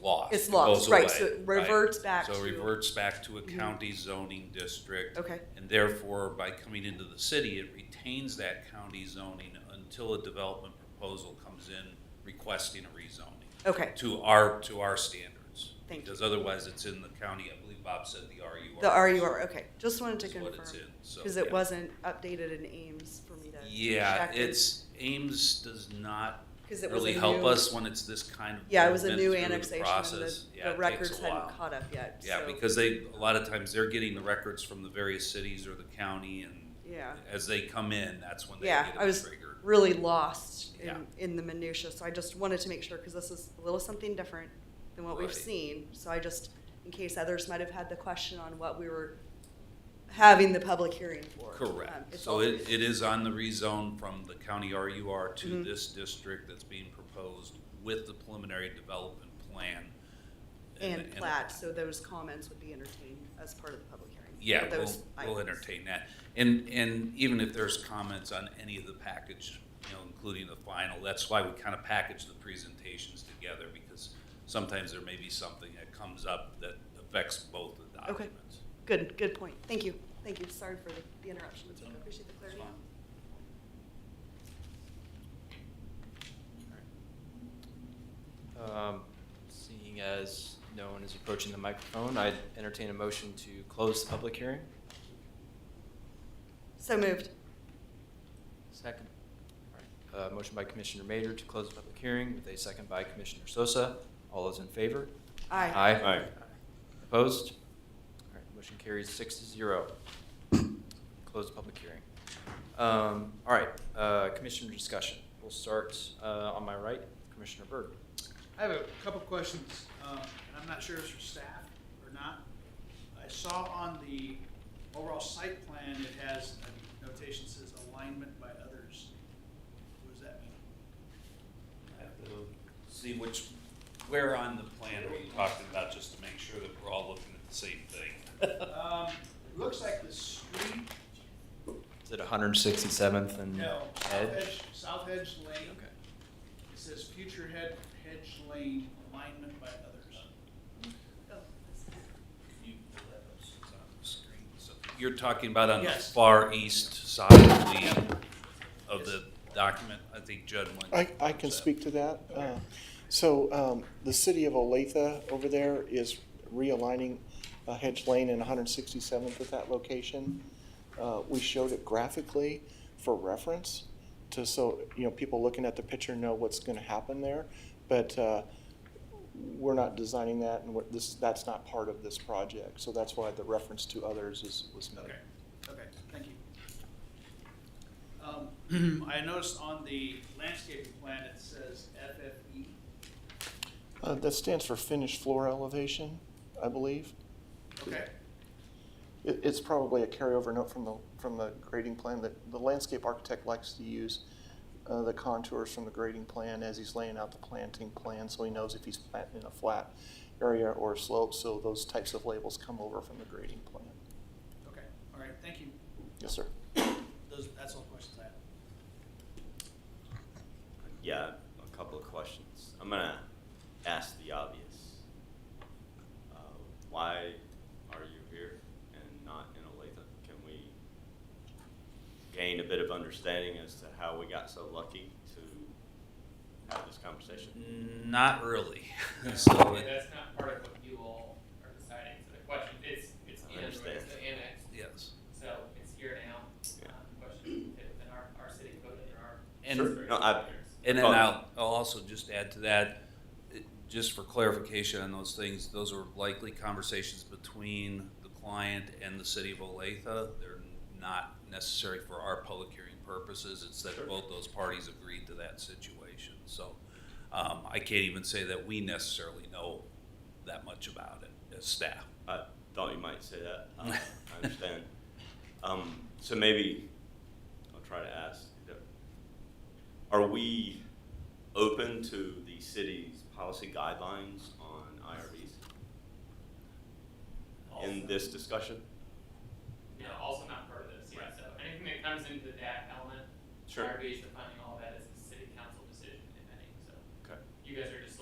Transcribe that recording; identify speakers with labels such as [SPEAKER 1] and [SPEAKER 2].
[SPEAKER 1] lost.
[SPEAKER 2] It's
[SPEAKER 1] It
[SPEAKER 2] lost,
[SPEAKER 1] goes
[SPEAKER 2] right, so
[SPEAKER 1] away,
[SPEAKER 2] it reverts back
[SPEAKER 1] So
[SPEAKER 2] to- Mhm.
[SPEAKER 1] it reverts back to a county zoning district.
[SPEAKER 2] Okay.
[SPEAKER 1] And therefore, by coming into the city, it retains that county zoning until a development proposal comes in requesting a rezoning
[SPEAKER 2] Okay,
[SPEAKER 1] to our, to our standards.
[SPEAKER 2] Thank you.
[SPEAKER 1] Because otherwise, it's in the county, I believe Bob said the RUR.
[SPEAKER 2] the RUR, okay, just wanted to
[SPEAKER 1] Is what
[SPEAKER 2] confirm.
[SPEAKER 1] it's in, so,
[SPEAKER 2] Because it
[SPEAKER 1] yeah.
[SPEAKER 2] wasn't updated in Ames for me to check.
[SPEAKER 1] Yeah, it's, Ames does not
[SPEAKER 2] 'Cause it was a
[SPEAKER 1] really help
[SPEAKER 2] new-
[SPEAKER 1] us when it's this kind of.
[SPEAKER 2] Yeah, it was a
[SPEAKER 1] movement
[SPEAKER 2] new
[SPEAKER 1] through the
[SPEAKER 2] annexation, and the,
[SPEAKER 1] process. Yeah,
[SPEAKER 2] the
[SPEAKER 1] it
[SPEAKER 2] records
[SPEAKER 1] takes a while.
[SPEAKER 2] hadn't caught up yet, so.
[SPEAKER 1] Yeah, because they, a lot of times they're getting the records from the various cities or the county and
[SPEAKER 2] Yeah,
[SPEAKER 1] as they come in, that's when they
[SPEAKER 2] yeah,
[SPEAKER 1] get
[SPEAKER 2] I was
[SPEAKER 1] triggered.
[SPEAKER 2] really lost
[SPEAKER 1] Yeah.
[SPEAKER 2] in, in the minutia, so I just wanted to make sure, because this is a little something different than what we've
[SPEAKER 1] Right.
[SPEAKER 2] seen. So I just, in case others might have had the question on what we were having the public hearing for. um,
[SPEAKER 1] Correct.
[SPEAKER 2] it's
[SPEAKER 1] So
[SPEAKER 2] all-
[SPEAKER 1] it, it is on the rezone from the county RUR to
[SPEAKER 2] Mhm.
[SPEAKER 1] this district that's being proposed with the preliminary development plan.
[SPEAKER 2] And plat, so those comments would be entertained as part of the public hearing.
[SPEAKER 1] Yeah,
[SPEAKER 2] for
[SPEAKER 1] we'll,
[SPEAKER 2] those
[SPEAKER 1] we'll
[SPEAKER 2] items.
[SPEAKER 1] entertain that. And, and even if there's comments on any of the package, you know, including the final, that's why we kind of package the presentations together because sometimes there may be something that comes up that affects both the
[SPEAKER 2] Okay.
[SPEAKER 1] documents.
[SPEAKER 2] Good, good point. Thank you. Thank you. Sorry for the- the interruption. I appreciate the clarity.
[SPEAKER 3] Um, Seeing as no one is approaching the microphone, I'd entertain a motion to close the public hearing.
[SPEAKER 2] So moved.
[SPEAKER 3] Second. Uh, motion by Commissioner Major to close the public hearing with a second by Commissioner Sosa. All those in favor?
[SPEAKER 2] Aye.
[SPEAKER 3] Aye. Opposed? All right, motion carries six to zero. Close the public hearing. Um, all right, uh, Commissioner discussion. We'll start, uh, on my right, Commissioner Byrd.
[SPEAKER 4] I have a couple questions, um, and I'm not sure if it's for staff or not. I saw on the overall site plan, it has a notation that says alignment by others. What does that mean?
[SPEAKER 1] Have to See which, where on the plan are you talking about, just to make sure that we're all looking at the same thing?
[SPEAKER 4] Um, it looks like the street,
[SPEAKER 3] Is it 167th and
[SPEAKER 4] no, South
[SPEAKER 3] Ed?
[SPEAKER 4] Edge, South Edge Lane.
[SPEAKER 3] Mm-hmm. Okay.
[SPEAKER 4] It says future head, hedge lane alignment by others.
[SPEAKER 2] Oh,
[SPEAKER 1] You're talking about on the
[SPEAKER 4] Yes.
[SPEAKER 1] far east side of the, of the document, I think Judd went.
[SPEAKER 5] I, I can speak to that. Uh, So um, the city of Olathe over there is realigning uh, Hedge Lane and 167th at that location. Uh, We showed it graphically for reference to, so, you know, people looking at the picture know what's going to happen there. But uh, we're not designing that and we're- this, that's not part of this project. So that's why the reference to others is, was made.
[SPEAKER 4] Okay, okay, thank you. Um, I noticed on the landscaping plan, it says E. FFE.
[SPEAKER 5] Uh, That stands for finished floor elevation, I believe.
[SPEAKER 4] Okay,
[SPEAKER 5] It, it's probably a carryover note from the, from the grading plan that the landscape architect likes to use uh, the contours from the grading plan as he's laying out the planting plan, so he knows if he's planting in a flat area or slope, so those types of labels come over from the grading plan.
[SPEAKER 4] okay, all right, thank you.
[SPEAKER 5] Yes, sir.
[SPEAKER 4] Those, that's all the questions I have.
[SPEAKER 6] Yeah, a couple of questions. I'm gonna ask the obvious. Uh, Why are you here and not in Olathe? Can we gain a bit of understanding as to how we got so lucky to have this conversation?
[SPEAKER 1] Not really. So, it-
[SPEAKER 7] That's not part of what you all are deciding, so the question, it's, it's
[SPEAKER 6] I
[SPEAKER 7] in, it's the
[SPEAKER 6] understand.
[SPEAKER 7] annex,
[SPEAKER 1] yes.
[SPEAKER 7] so it's here now.
[SPEAKER 6] Yeah.
[SPEAKER 7] Um, Question, fit within our, our city code and our.
[SPEAKER 1] And-
[SPEAKER 7] Sure.
[SPEAKER 6] No, I-
[SPEAKER 1] And then
[SPEAKER 6] Oh.
[SPEAKER 1] I'll, I'll also just add to that, it- just for clarification on those things, those are likely conversations between the client and the city of Olathe. They're not necessary for our public hearing purposes. It's that
[SPEAKER 6] Sure.
[SPEAKER 1] both those parties agreed to that situation. So um, I can't even say that we necessarily know that much about it as staff.
[SPEAKER 6] I thought you might say that. Uh, I understand. Um, so maybe I'll try to ask. Are we open to the city's policy guidelines on IRBs in this discussion?
[SPEAKER 7] No, also not part of this, yeah,
[SPEAKER 6] Right.
[SPEAKER 7] so anything that comes into that element,
[SPEAKER 6] Sure.
[SPEAKER 7] RB is defining all that as a city council decision, if any, so.
[SPEAKER 6] Okay.
[SPEAKER 7] You guys are just